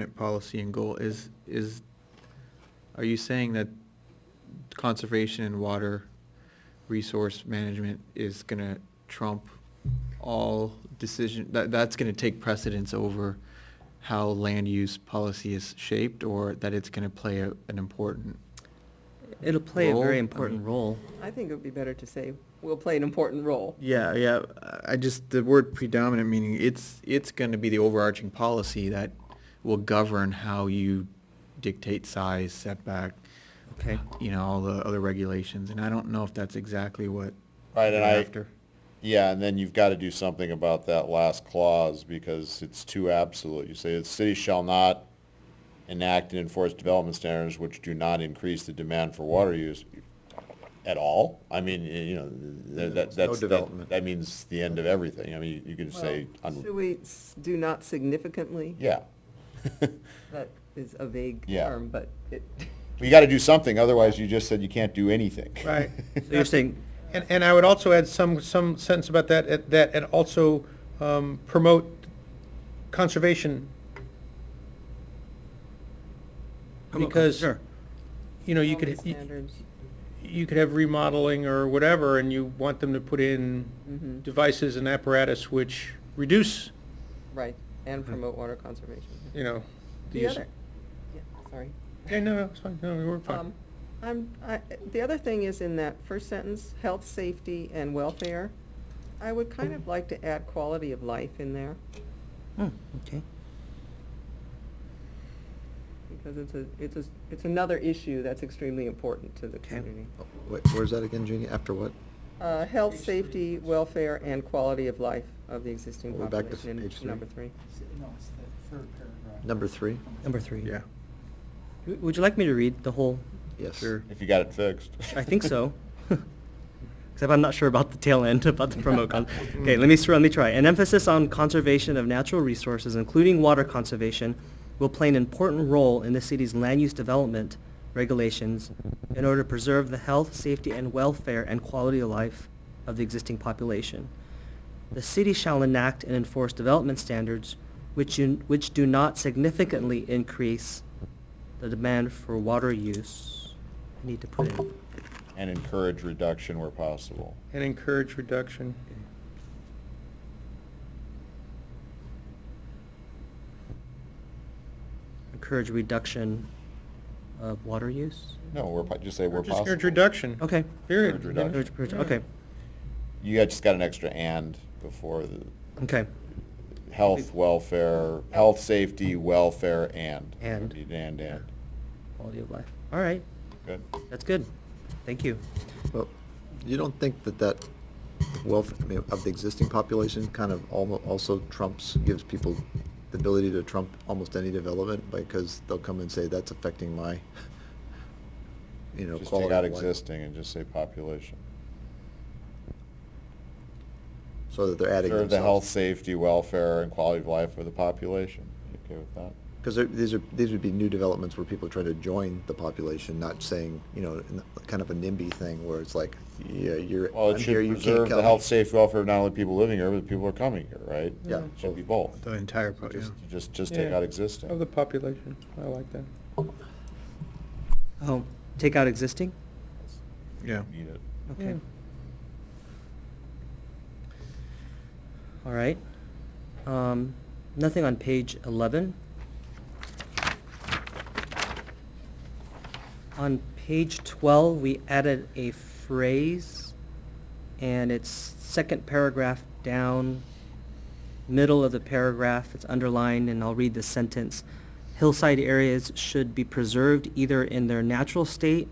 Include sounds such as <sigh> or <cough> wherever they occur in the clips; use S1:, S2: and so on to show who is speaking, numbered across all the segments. S1: management policy and goal is, is, are you saying that conservation and water resource management is gonna trump all decision, that, that's gonna take precedence over how land use policy is shaped, or that it's gonna play a- an important?
S2: It'll play a
S1: Role, I
S2: very
S1: mean-
S2: important role.
S3: I think it would be better to say, will play an important role.
S1: Yeah, yeah, I just, the word predominant meaning, it's, it's gonna be the overarching policy that will govern how you dictate size, setback,
S2: Okay.
S1: you know, all the other regulations, and I don't know if that's exactly what
S4: Right,
S1: they're
S4: and I,
S1: after.
S4: yeah, and then you've got to do something about that last clause because it's too absolute. You say the city shall not enact and enforce development standards which do not increase the demand for water use at all. I mean, y- you know, th- that,
S5: No
S4: that's, that-
S5: development.
S4: that means the end of everything. I mean, you could just say,
S3: Well,
S4: un-
S3: Should we s- do not significantly?
S4: yeah. <laughs>
S3: That is a vague
S4: Yeah.
S3: term, but it,
S4: You got to do something, otherwise you just said you can't do anything.
S5: Right.
S2: So you're saying,
S5: And, and I would also add some, some sentence about that, eh, that and also um, promote conservation. Because,
S2: sure,
S5: you know, you could,
S3: Development
S5: you-
S3: standards.
S5: you could have remodeling or whatever, and you want them to put in
S3: Mhm.
S5: devices and apparatus which reduce,
S3: right, and promote water conservation.
S5: you know.
S3: The
S5: use-
S3: other, yeah, sorry.
S5: Yeah, no, no, it's fine, no, we're fine.
S3: Um, I'm, I, the other thing is in that first sentence, health, safety, and welfare. I would kind of like to add quality of life in there,
S2: Hmm, okay.
S3: because it's a, it's a, it's another issue that's extremely important to the
S2: Okay.
S3: community.
S6: Wait, where's that again, Jeannie? After what?
S3: Uh, Health, safety, welfare, and quality of life of the existing
S6: We're back to
S3: population
S6: page
S3: in
S6: three.
S3: number three.
S7: No, it's the third paragraph.
S6: Number three?
S2: number three. W- Would you like me to read the whole?
S6: Yes.
S1: Sure.
S4: <laughs> If you got it fixed.
S2: I think so. <laughs> Except I'm not sure about the tail end about the promote con. Okay, let me, s- let me try. An emphasis on conservation of natural resources, including water conservation, will play an important role in the city's land use development regulations in order to preserve the health, safety, and welfare and quality of life of the existing population. The city shall enact and enforce development standards which, in- which do not significantly increase the demand for water use. I need to put in.
S4: <laughs> And encourage reduction where possible.
S5: And encourage reduction.
S2: encourage reduction of water use?
S4: No, where, po- just say where
S5: Or Just
S4: possible.
S5: encourage reduction.
S2: Okay.
S5: Period.
S4: Encourage reduction.
S2: Encourage- encourage- Okay,
S4: You got- just got an extra and before the
S2: okay.
S4: health, welfare, health, safety, welfare, and.
S2: And.
S4: Need And, and.
S2: Quality of life. All right,
S4: Good.
S2: that's good. Thank you.
S6: Well, you don't think that that wealth, I mean, of the existing population kind of almo- also trumps, gives people the ability to trump almost any development because they'll come and say, that's affecting my, you know,
S4: Just take
S6: quality
S4: out
S6: of life.
S4: existing and just say population.
S6: So that they're adding
S4: Serve
S6: themselves.
S4: the health, safety, welfare, and quality of life of the population. You okay with that?
S6: Because these are, these would be new developments where people try to join the population, not saying, you know, in the- kind of a NIMBY thing where it's like, yeah, you're,
S4: Well,
S6: I'm
S4: it
S6: here,
S4: should
S6: you can't come.
S4: preserve the health, safety, welfare of not only people living here, but the people who are coming here, right?
S6: Yeah.
S4: It Should be both.
S1: The entire, pro- yeah.
S4: Just, just, just take
S5: Mm-hmm. Yeah.
S4: out existing.
S5: Of the population, I like that.
S2: Oh, take out existing?
S1: yeah.
S4: Need it.
S2: Okay,
S5: Yeah.
S2: all right. Um, Nothing on page 11. On page 12, we added a phrase, and it's second paragraph down, middle of the paragraph, it's underlined, and I'll read the sentence. Hillside areas should be preserved either in their natural state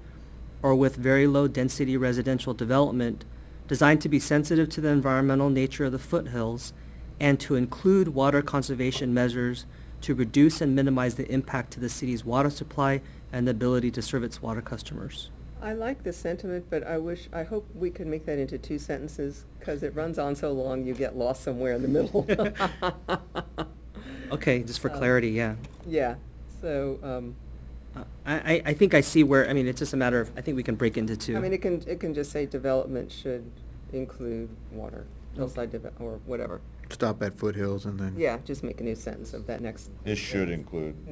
S2: or with very low-density residential development designed to be sensitive to the environmental nature of the foothills and to include water conservation measures to reduce and minimize the impact to the city's water supply and the ability to serve its water customers.
S3: I like this sentiment, but I wish, I hope we could make that into two sentences, because it runs on so long, you get lost somewhere in the middle.
S2: Okay, just for
S3: Um,
S2: clarity, yeah.
S3: Yeah, so, um,
S2: Uh, I, I, I think I see where, I mean, it's just a matter of, I think we can break into two.
S3: I mean, it can, it can just say development should include water, hillside develop, or whatever.
S1: Stop at foothills and then.
S3: Yeah, just make a new sentence of that next
S4: This should include.